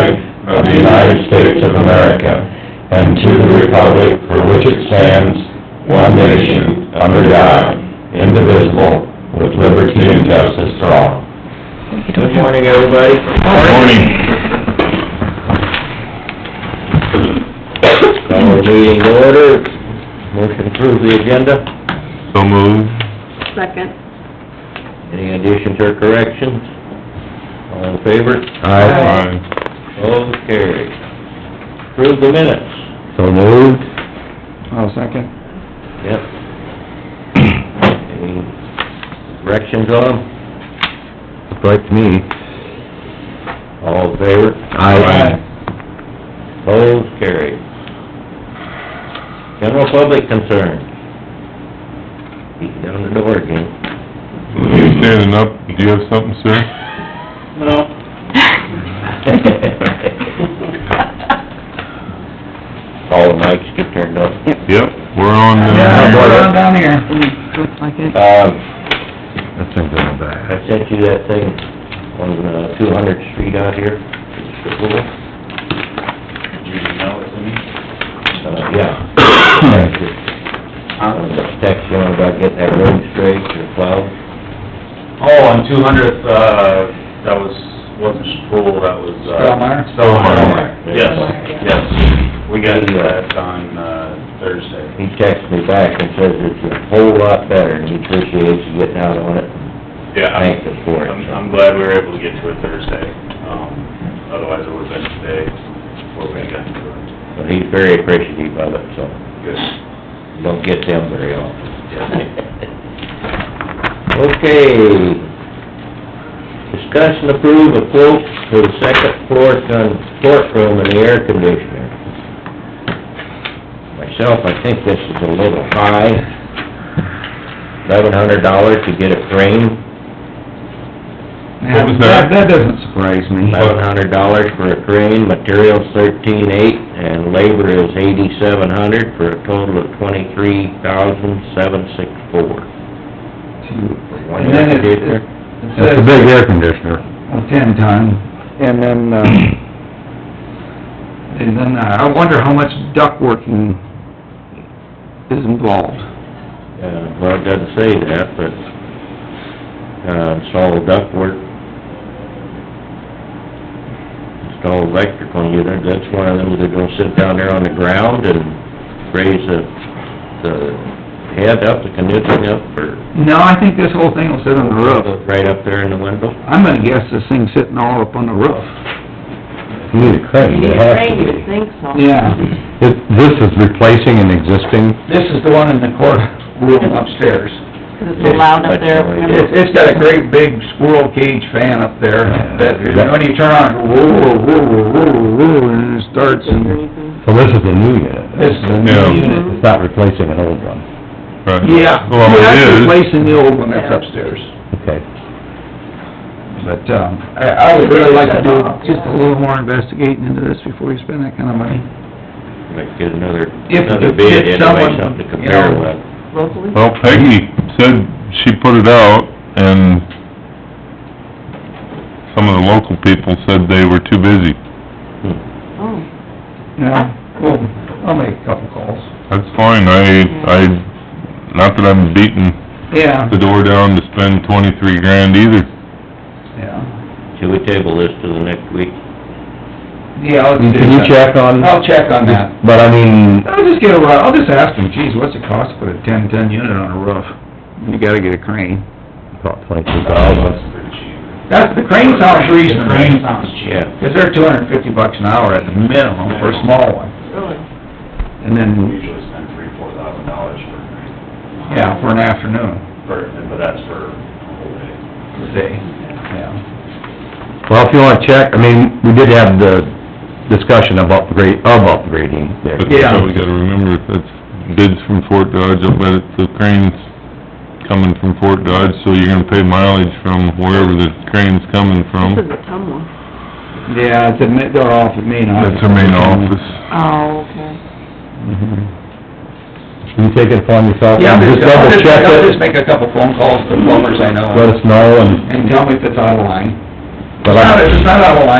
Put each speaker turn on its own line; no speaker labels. the United States of America and to the republic for which it stands, one nation, under God, indivisible, with liberty and justice for all.
Good morning, everybody.
Morning.
Call the meeting to order. Motion to approve the agenda.
So moved.
Second.
Any additions or corrections? All in favor?
Aye.
All carried. Approve the minutes.
So moved.
I'll second.
Yep. Any corrections on them?
Looks like me.
All in favor?
Aye.
All carried. General public concern. Beat down the door again.
You standing up, do you have something, sir?
All the mics get turned up.
Yep, we're on,
Yeah,
uh,
go down, down here.
Um,
That thing's on the
I
back.
sent you that thing on, uh, two hundred street out here. Uh, yeah. I was just texting you about getting that road straight or plowed.
Oh, on two hundredth, uh, that was, wasn't Sproul, that was, uh...
Stellmeyer?
Stellmeyer, yes,
Stellmeyer.
yes. We got that on, uh, Thursday.
He texted me back and says it's a whole lot better and he appreciates you getting out on it.
Yeah,
Thank you
I'm,
for it.
I'm I'm glad we were able to get to it Thursday, um, otherwise it would've been today before we got to it.
So he's very appreciative of it, so
Good.
you don't get them very often.
Yeah.
Okay. Discuss and approve a quote for the second floor con- courtroom and the air conditioner. Myself, I think this is a little high. Eleven hundred dollars to get it framed,
Yeah,
was that?
That doesn't surprise me.
eleven hundred dollars for a crane, materials thirteen eight, and labor is eighty-seven hundred for a total of twenty-three thousand seven six four.
And then it, it it
That's a
says
big air conditioner.
a ten ton, and then, uh, and then uh, I wonder how much duck working is involved.
Uh, well, it doesn't say that, but, uh, install ductwork. Install electrical unit, that's one of them, they're gonna sit down there on the ground and raise the, the head up, the conditioning up, or
No, I think this whole thing will sit on the roof.
right up there in the window.
I'm gonna guess this thing's sitting all up on the roof.
You need a crane, it has to
Rain,
be.
you think so?
Yeah.
It- This is replacing an existing,
This is the one in the courtroom upstairs.
'Cause it's allowed up there,
It's,
remember?
it's got a great big squirrel cage fan up there, that, you know, when you turn on, it, whoa, whoa, whoa, whoa, whoa, and it starts, and
Mhm.
so this is a new unit.
this is a
Yeah.
new unit.
It's not replacing an old one.
right.
Yeah,
Well,
we're actually
it is,
replacing the old one that's upstairs,
Okay.
but, um, I, I would really like to do just a little more investigating into this before you spend that kind of money.
Might get another,
If-
another
if-
bid
if
anyway,
someone,
something to
you
compare
know-
with.
Locally?
well, Peggy said she put it out, and some of the local people said they were too busy.
Oh,
Yeah, cool, I'll make a couple calls.
That's fine, I, I, not that I'm beating
Yeah,
the door down to spend twenty-three grand either.
yeah,
Should we table this to the next week?
yeah, let's do that.
Can you check on?
I'll check on that.
But I mean,
I'll just get a, ru- I'll just ask them, geez, what's it cost to put a ten-ton unit on a roof? You gotta get a crane.
about twenty-two
Um, That's
thousand.
pretty cheap.
That's, the crane sounds reasonable.
Crane sounds
cheap. Cause they're two hundred and fifty bucks an hour at the minimum for a small one,
really?
and
We
then,
usually spend three, four thousand dollars for, a crane.
yeah, for an afternoon,
for, but that's for a whole
a day,
day.
yeah.
Well, if you wanna check, I mean, we did have the discussion of upgrade, of upgrading there.
But
Yeah.
we gotta remember, that's bids from Fort Dodge, I bet it's the cranes coming from Fort Dodge, so you're gonna pay mileage from wherever the crane's coming
This is
from.
a tum one.
Yeah, it's a, ma- they're off at main office.
That's our main office.
Oh, okay.
Mhm.
You take it upon yourself,
Yeah,
and
I'm
just
just, I'll
double
just,
check
I'll just
it,
make a couple phone calls to plumbers I know,
let us know, and,
and tell me if it's out of line. It's
but I...
not, it's not out of line,